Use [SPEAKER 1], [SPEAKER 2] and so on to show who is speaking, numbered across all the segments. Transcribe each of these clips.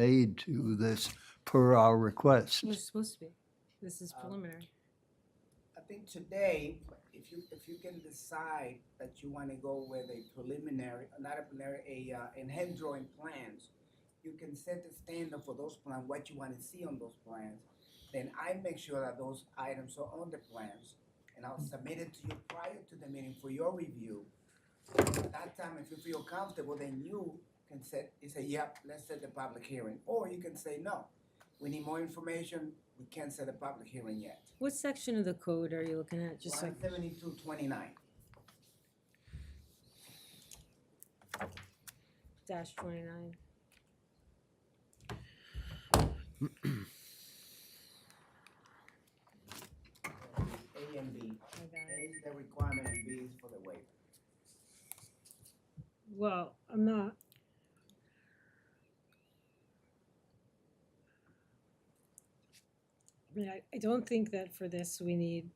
[SPEAKER 1] made to this per our request.
[SPEAKER 2] It was supposed to be. This is preliminary.
[SPEAKER 3] I think today, if you, if you can decide that you wanna go with a preliminary, not a preliminary, a, uh, in hand drawing plans, you can set the standard for those plans, what you wanna see on those plans. Then I make sure that those items are on the plans, and I'll submit it to you prior to the meeting for your review. At that time, if you feel comfortable, then you can set, you say, yep, let's set the public hearing, or you can say, no, we need more information, we can't set a public hearing yet.
[SPEAKER 2] What section of the code are you looking at? Just like,
[SPEAKER 3] One seventy-two twenty-nine.
[SPEAKER 2] dash twenty-nine?
[SPEAKER 3] A and B.
[SPEAKER 2] I got
[SPEAKER 3] A
[SPEAKER 2] it.
[SPEAKER 3] is the requirement and B is for the waiver.
[SPEAKER 2] Well, I'm not. I mean, I, I don't think that for this we need.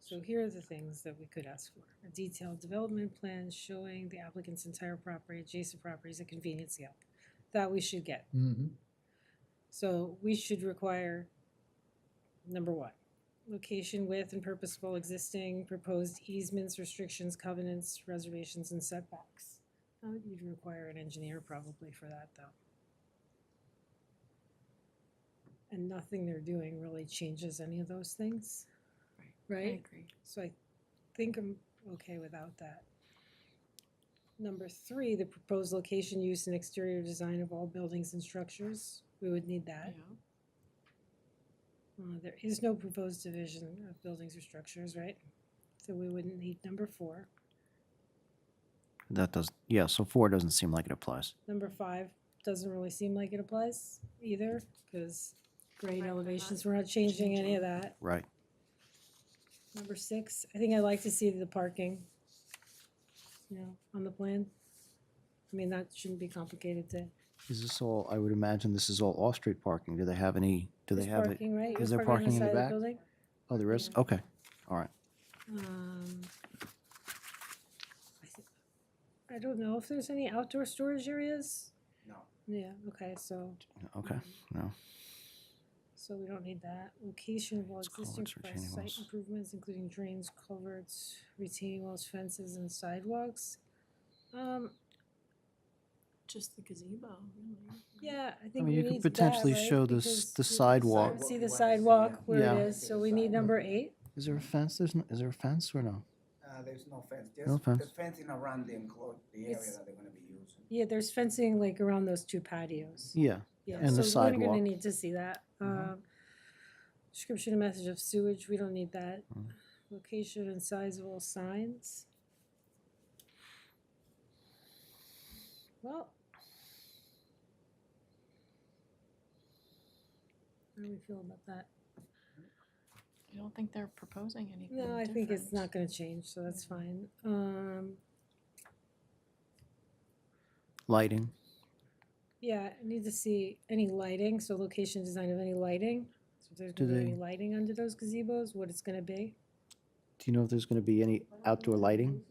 [SPEAKER 2] So here are the things that we could ask for. A detailed development plan showing the applicant's entire property, adjacent properties, and convenience scale. That we should get.
[SPEAKER 1] Mhm.
[SPEAKER 2] So we should require, number one, location with and purposeful existing proposed easements, restrictions, covenants, reservations, and setbacks. Uh, You'd require an engineer probably for that, though. And nothing they're doing really changes any of those things, right?
[SPEAKER 4] agree.
[SPEAKER 2] So I think I'm okay without that. Number three, the proposed location, use, and exterior design of all buildings and structures. We would need that. Uh, There is no proposed division of buildings or structures, right? So we wouldn't need number four.
[SPEAKER 5] That does, yeah, so four doesn't seem like it applies.
[SPEAKER 2] Number five doesn't really seem like it applies either, because grade
[SPEAKER 4] Right, we're not
[SPEAKER 2] elevations, we're not changing any of that.
[SPEAKER 5] Right.
[SPEAKER 2] Number six, I think I like to see the parking, you know, on the plan. I mean, that shouldn't be complicated to,
[SPEAKER 5] Is this all, I would imagine this is all off-street parking. Do they have any, do they
[SPEAKER 2] there's
[SPEAKER 5] have it?
[SPEAKER 2] parking, right?
[SPEAKER 5] is
[SPEAKER 2] You're
[SPEAKER 5] there
[SPEAKER 2] on
[SPEAKER 5] parking in the
[SPEAKER 2] side of
[SPEAKER 5] back?
[SPEAKER 2] building?
[SPEAKER 5] Oh, there is?
[SPEAKER 2] yeah.
[SPEAKER 5] Okay, all right.
[SPEAKER 2] Um, I thi- I don't know if there's any outdoor storage areas.
[SPEAKER 3] No.
[SPEAKER 2] Yeah, okay, so,
[SPEAKER 5] Okay, no.
[SPEAKER 2] so we don't need that. Location of all
[SPEAKER 5] It's
[SPEAKER 2] existing
[SPEAKER 5] culverts,
[SPEAKER 2] proposed
[SPEAKER 5] retaining
[SPEAKER 2] site
[SPEAKER 5] walls.
[SPEAKER 2] improvements, including drains, culverts, retaining walls, fences, and sidewalks. Um,
[SPEAKER 4] Just the gazebo, really.
[SPEAKER 2] yeah, I
[SPEAKER 5] I
[SPEAKER 2] think
[SPEAKER 5] mean,
[SPEAKER 2] we
[SPEAKER 5] you could
[SPEAKER 2] need that,
[SPEAKER 5] potentially
[SPEAKER 2] right?
[SPEAKER 5] show
[SPEAKER 2] Because
[SPEAKER 5] this, the
[SPEAKER 2] we don't
[SPEAKER 5] sidewalk.
[SPEAKER 3] sidewalk.
[SPEAKER 2] See the
[SPEAKER 3] Yeah.
[SPEAKER 2] sidewalk where
[SPEAKER 5] Yeah.
[SPEAKER 2] it is, so we need number eight?
[SPEAKER 5] Is there a fence? There's, no. is there a fence or no?
[SPEAKER 3] Uh, there's no fence,
[SPEAKER 5] No
[SPEAKER 3] just the
[SPEAKER 5] fence.
[SPEAKER 3] fencing around the enclosed, the area
[SPEAKER 2] It's-
[SPEAKER 3] that they're gonna be using.
[SPEAKER 2] Yeah, there's fencing like around those two patios.
[SPEAKER 5] Yeah,
[SPEAKER 2] Yeah,
[SPEAKER 5] And the
[SPEAKER 2] so we're gonna
[SPEAKER 5] sidewalk.
[SPEAKER 2] need to see that.
[SPEAKER 5] Mhm.
[SPEAKER 2] Um, Description and message of sewage, we don't need that.
[SPEAKER 5] Mm.
[SPEAKER 2] Location and size of all signs. Well. How do we feel about that?
[SPEAKER 4] I don't think they're proposing anything
[SPEAKER 2] No, I think it's not
[SPEAKER 4] different.
[SPEAKER 2] gonna change, so that's fine. Um,
[SPEAKER 5] lighting.
[SPEAKER 2] yeah, I need to see any lighting, so location design of any lighting. So if there's
[SPEAKER 5] Do
[SPEAKER 2] gonna be any
[SPEAKER 5] they-
[SPEAKER 2] lighting under those gazebos, what it's gonna be?
[SPEAKER 5] Do you know if there's gonna be any outdoor lighting?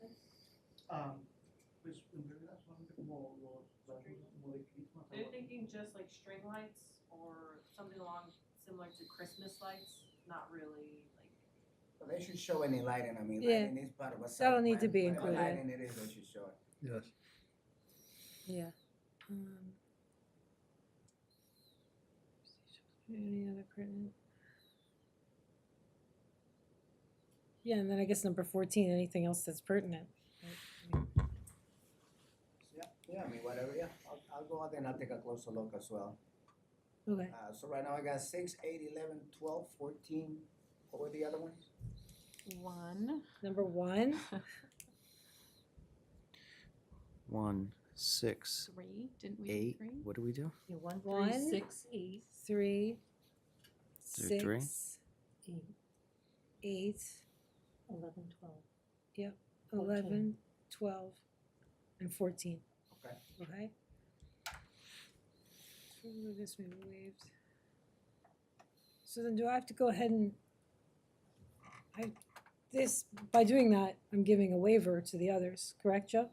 [SPEAKER 6] Um, pues en realidad solamente como los, como de Christmas.
[SPEAKER 7] They're thinking just like string lights or something along similar to Christmas lights, not really like.
[SPEAKER 3] But they should show any lighting, I mean,
[SPEAKER 2] Yeah.
[SPEAKER 3] lighting is part of a site.
[SPEAKER 2] That'll need to
[SPEAKER 3] plan.
[SPEAKER 2] be
[SPEAKER 3] Whatever
[SPEAKER 2] included.
[SPEAKER 3] Lighting it is, they should show it.
[SPEAKER 1] Yes.
[SPEAKER 2] Yeah. Um, Any other pertinent? Yeah, and then I guess number fourteen, anything else that's pertinent? right?
[SPEAKER 3] Yeah, yeah, I mean, whatever, yeah, I'll, I'll go out there and I'll take a closer look as well.
[SPEAKER 2] Okay,
[SPEAKER 3] Uh, so right now I got six, eight, eleven, twelve, fourteen, what were the other ones?
[SPEAKER 4] One,
[SPEAKER 2] number one,
[SPEAKER 5] One, six,
[SPEAKER 4] three, didn't we do
[SPEAKER 5] eight,
[SPEAKER 4] three?
[SPEAKER 5] what do we do?
[SPEAKER 7] Yeah, one,
[SPEAKER 2] three, One. six,
[SPEAKER 7] eight.
[SPEAKER 2] three,
[SPEAKER 5] Is there three?
[SPEAKER 2] six, eight,
[SPEAKER 7] Eleven, twelve. Fourteen.
[SPEAKER 2] eleven, twelve, and fourteen.
[SPEAKER 3] Okay.
[SPEAKER 2] Okay? Remove this, we waived. So then do I have to go ahead and, I, this, by doing that, I'm giving a waiver to the others, correct, Joe?